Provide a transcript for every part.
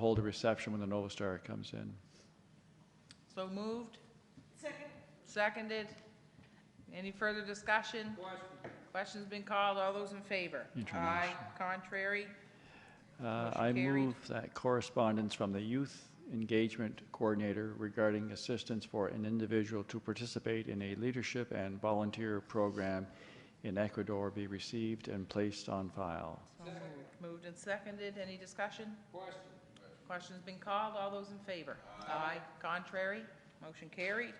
hold a reception when the Nova Star comes in. So moved? Second. Seconded. Any further discussion? Question. Question's been called. All those in favor? Aye. Contrary? Uh, Motion I carried. move that correspondence from the Youth Engagement Coordinator regarding assistance for an individual to participate in a leadership and volunteer program in Ecuador be received and placed on file. So moved. Moved and seconded. Any discussion? Question. Question's been called. All those in favor? Aye. Contrary? Motion carried.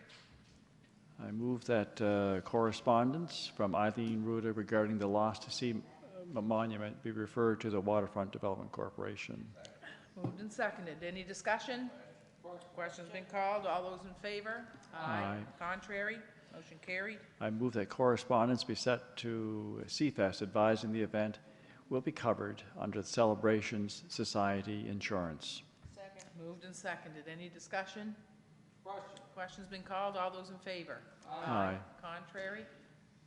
I move that uh, correspondence from Eileen Ruda regarding the Lost to Sea m- Monument be referred to the Waterfront Development Corporation. Moved and seconded. Any discussion? Question's been called. All those in favor? Aye. Contrary? Motion carried. I move that correspondence be set to CFES advising the event will be covered under the Celebrations Society insurance. Moved and seconded. Any discussion? Question. Question's been called. All those in favor? Aye. Contrary?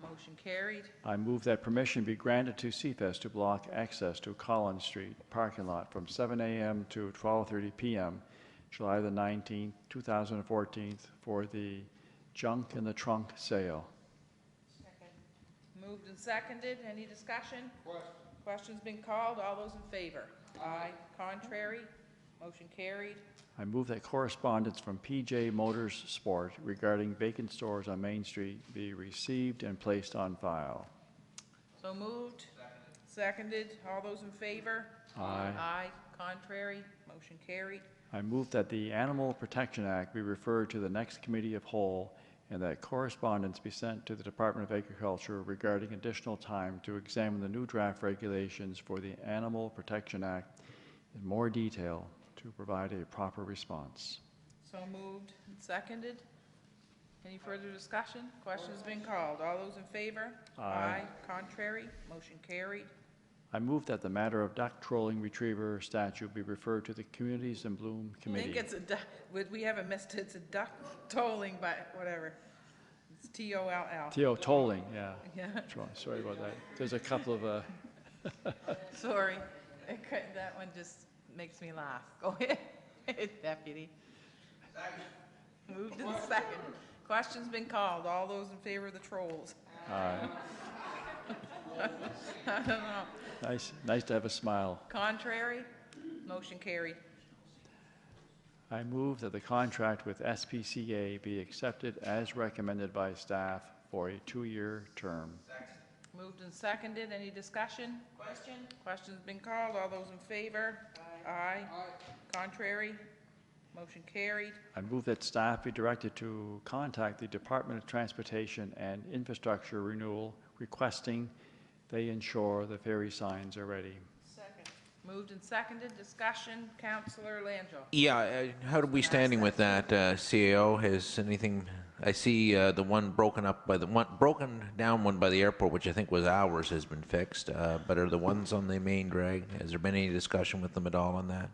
Motion carried. I move that permission be granted to CFES to block access to Collins Street parking lot from 7 a.m. to 12:30 p.m., July the 19th, 2014, for the junk in the trunk sale. Moved and seconded. Any discussion? Question. Question's been called. All those in favor? Aye. Contrary? Motion carried. I move that correspondence from PJ Motors Sport regarding vacant stores on Main Street be received and placed on file. So moved. Seconded. All those in favor? Aye. Aye. Contrary? Motion carried. I move that the Animal Protection Act be referred to the next committee of whole and that correspondence be sent to the Department of Agriculture regarding additional time to examine the new draft regulations for the Animal Protection Act in more detail to provide a proper response. So moved and seconded. Any further discussion? Question's been called. All those in favor? Aye. Contrary? Motion carried. I move that the matter of duck trolling retriever statute be referred to the Communities in Bloom I think Committee. it's a duck, we- we haven't missed it, it's a duck tolling, but whatever. It's T-O-L-L. Theo, tolling, yeah. Yeah, Sorry- Sorry about that. There's a couple of, uh, sorry. I couldn't- That one just makes me laugh. Go ahead, deputy. Moved and seconded. Question's been called. All those in favor of the trolls? uh, I don't know. nice, nice to have a smile. Contrary? Motion carried. I move that the contract with SPCA be accepted as recommended by staff for a two-year term. Moved and seconded. Any discussion? Question. Question's been called. All those in favor? Aye. Contrary? Motion carried. I move that staff be directed to contact the Department of Transportation and Infrastructure Renewal requesting they ensure the ferry signs are ready. Moved and seconded. Discussion. Counselor Langill. Yeah, uh, how are we standing with that uh, CAO? Has anything? I see uh, the one broken up by the one broken down one by the airport, which I think was ours, has been fixed. Uh, but are the ones on the main drag? Has there been any discussion with them at all on that?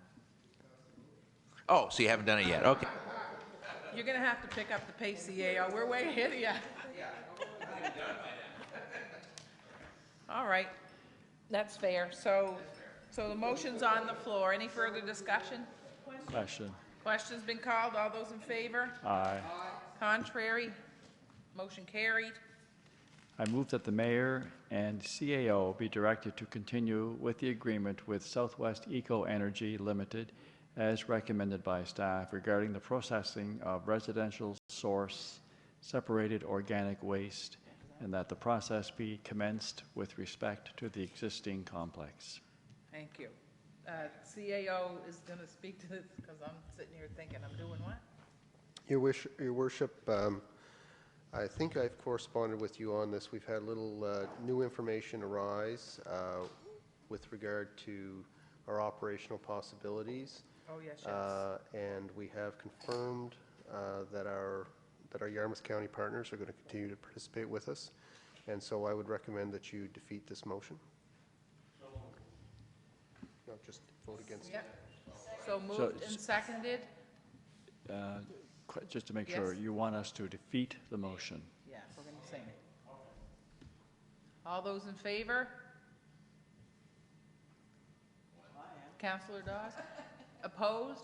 Oh, so you haven't done it yet? Okay. You're gonna have to pick up the pace, CAO. We're way ahead of you. All right. That's fair. So, so the motion's on the floor. Any further discussion? Question? Question's been called. All those in favor? Aye. Contrary? Motion carried. I move that the mayor and CAO be directed to continue with the agreement with Southwest Eco Energy Limited as recommended by staff regarding the processing of residential source separated organic waste, and that the process be commenced with respect to the existing complex. Thank you. Uh, CAO is gonna speak to this, because I'm sitting here thinking, I'm doing what? Your wish, your worship, um, I think I've corresponded with you on this. We've had a little uh, new information arise uh, with regard to our operational possibilities. Oh, yes, yes. Uh, And we have confirmed uh, that our, that our Yarmouth County partners are going to continue to participate with us. And so I would recommend that you defeat this motion. No, just vote against it. Yep. So moved and seconded? Uh, qu- Just to make sure, Yes. you want us to defeat the motion? Yeah, we're gonna sing it. All those in favor? Counselor Dawes? Opposed?